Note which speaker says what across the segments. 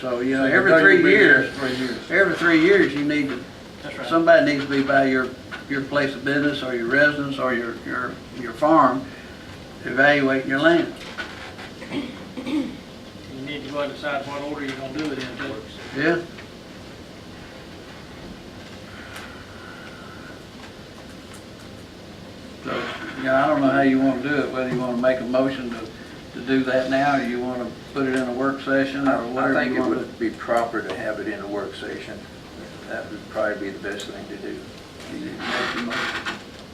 Speaker 1: So, you know,
Speaker 2: So
Speaker 1: every
Speaker 2: don't
Speaker 1: three
Speaker 2: bring it
Speaker 1: years,
Speaker 2: up Three years.
Speaker 1: every three years, you need to,
Speaker 2: That's right.
Speaker 1: somebody needs to be by your, your place of business or your residence or your, your, your farm evaluating your land.
Speaker 2: You need to go and decide what order you're gonna do it in, too.
Speaker 1: Yeah? So, yeah, I don't know how you wanna do it, whether you wanna make a motion to, to do that now, or you wanna put it in a work session, or
Speaker 3: I
Speaker 1: whatever
Speaker 3: think
Speaker 1: you
Speaker 3: it
Speaker 1: wanna do.
Speaker 3: would be proper to have it in a work session. That would probably be the best thing to do.
Speaker 1: You need to make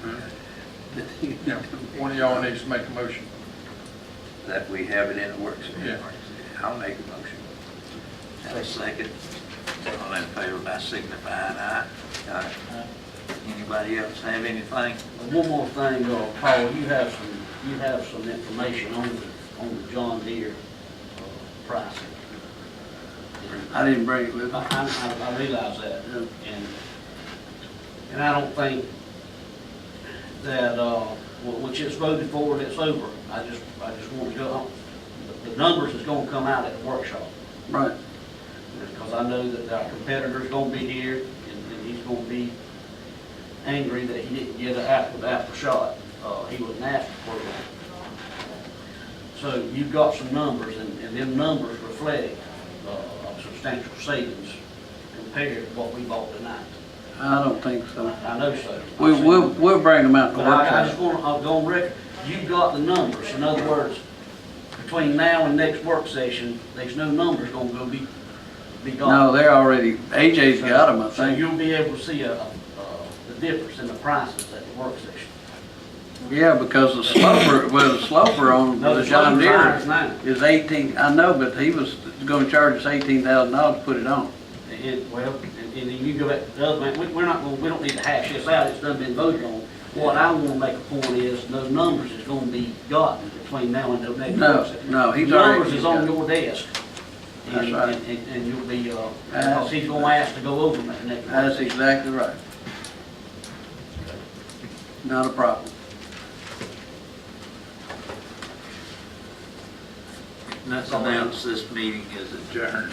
Speaker 1: a motion.
Speaker 4: One of y'all needs to make a motion.
Speaker 3: That we have it in a work
Speaker 4: Yeah.
Speaker 3: session. I'll make a motion. Have a second. All in favor by signifying aye. Aye. Anybody else have anything?
Speaker 5: One more thing, uh, Paul, you have some, you have some information on the, on the John Deere uh, pricing. And
Speaker 1: I didn't bring it with
Speaker 5: I,
Speaker 1: me. Uh,
Speaker 5: I- I realize that, and, and I don't think that, uh, wh- which is voted for, and it's over. I just, I just want to go on. The- The numbers is gonna come out at the workshop,
Speaker 1: Right,
Speaker 5: because I know that our competitor's gonna be here, and and he's gonna be angry that he didn't get an after, after shot. Uh, he wasn't asked for one. So you've got some numbers, and, and them numbers reflect, uh, substantial savings compared to what we bought tonight.
Speaker 1: I don't think so.
Speaker 5: I know so.
Speaker 1: We, we'll, we'll bring them out to
Speaker 5: But I, I
Speaker 1: work
Speaker 5: just
Speaker 1: session.
Speaker 5: want, I'll go on record, you've got the numbers, in other words, between now and next work session, there's no numbers gonna go be, be gone.
Speaker 1: No, they're already, AJ's got them, I
Speaker 5: So
Speaker 1: think.
Speaker 5: you'll be able to see a, a- a- the difference in the prices at the work session.
Speaker 1: Yeah, because the sloper, well, the sloper on
Speaker 5: No,
Speaker 1: the John
Speaker 5: load's
Speaker 1: Deere
Speaker 5: iron's not.
Speaker 1: is eighteen, I know, but he was gonna charge us eighteen thousand dollars to put it on.
Speaker 5: And, well, and and then you go back to the other, man, we, we're not gonna, we don't need to hash this out, it's done been voted on. What I wanna make a point is, those numbers is gonna be gotten between now and the next
Speaker 1: No,
Speaker 5: work session.
Speaker 1: no, he's
Speaker 5: The
Speaker 1: already.
Speaker 5: Numbers is on your desk. And-
Speaker 1: That's right.
Speaker 5: and- And, and you'll be, uh,
Speaker 1: That's-
Speaker 5: because he's gonna ask to go over them at the next. work
Speaker 1: That's
Speaker 5: session.
Speaker 1: exactly right. Not a problem.
Speaker 3: Let's announce this meeting is adjourned.